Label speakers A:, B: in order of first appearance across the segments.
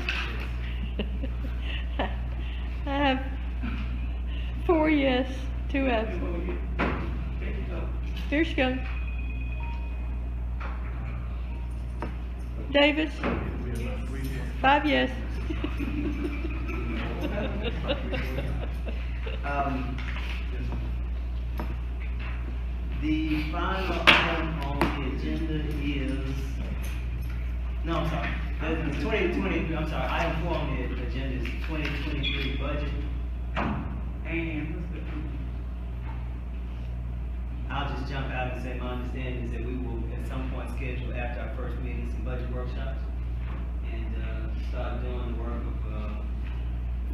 A: Four yes, two absent. Here she comes. Davis? Five yes.
B: Um, The final item on the agenda is, no, I'm sorry, the- the twenty twenty, I'm sorry, item four on the agenda is twenty twenty-three budget. And what's the? I'll just jump out and say my understanding is that we will at some point schedule after our first meeting some budget workshops and, uh, start doing the work of, uh,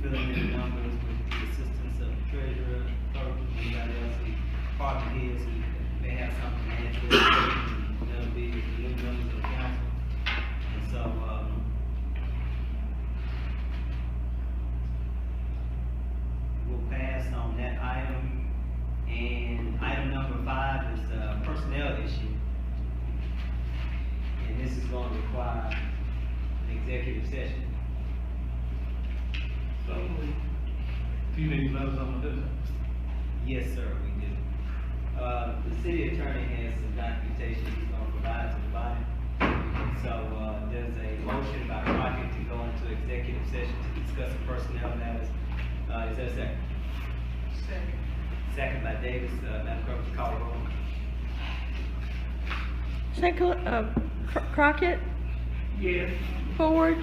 B: filling in the numbers with the assistance of the treasurer, clerk, anybody else, and department heads who may have something to add to it. That'll be the new members of the council. And so, um, we'll pass on that item. And item number five is, uh, personnel issue. And this is gonna require an executive session.
C: So, do you need letters on this?
B: Yes, sir, we do. Uh, the city attorney has some documentation he's gonna provide to the body. So, uh, there's a motion by Crockett to go into executive session to discuss personnel matters. Uh, is there a second? Second. Second by Davis, uh, Madam Clerk, would you call the roll?
A: Second, uh, Cro- Crockett,
C: Yes.
A: Ford,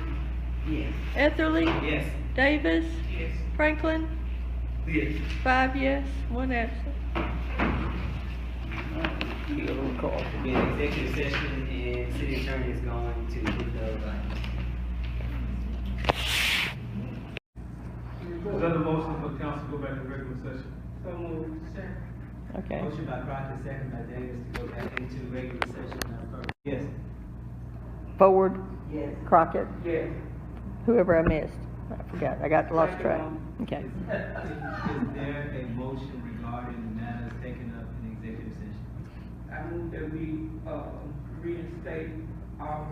B: Yes.
A: Etherly,
B: Yes.
A: Davis,
C: Yes.
A: Franklin,
C: Yes.
A: five yes, one absent.
B: Be in executive session and city attorney is going to give those items.
C: Is that the motion for council to go back to regular session?
A: Okay.
B: Motion by Crockett, second by Davis to go back into regular session, Madam Clerk. Yes.
A: Ford,
B: Yes.
A: Crockett,
B: Yes.
A: whoever I missed. I forgot, I got lost track. Okay.
B: Is there a motion regarding the matters taken up in executive session?
D: I move that we, uh, reinstate our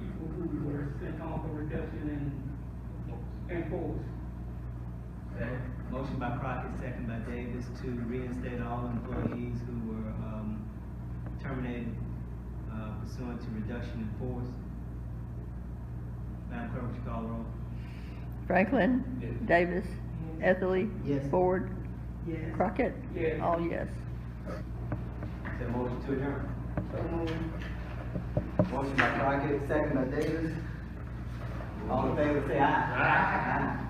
D: people who were sent home for reduction in, in force.
B: Motion by Crockett, second by Davis to reinstate all employees who were, um, terminated uh, pursuant to reduction in force. Madam Clerk, would you call the roll?
A: Franklin,
C: Yes.
A: Davis, Etherly,
B: Yes.
A: Ford,
D: Yes.
A: Crockett.
D: Yes.
A: All yes.
B: Is there a motion to adjourn?
D: So moved.
B: Motion by Crockett, second by Davis. All in favor, say aye. Aye.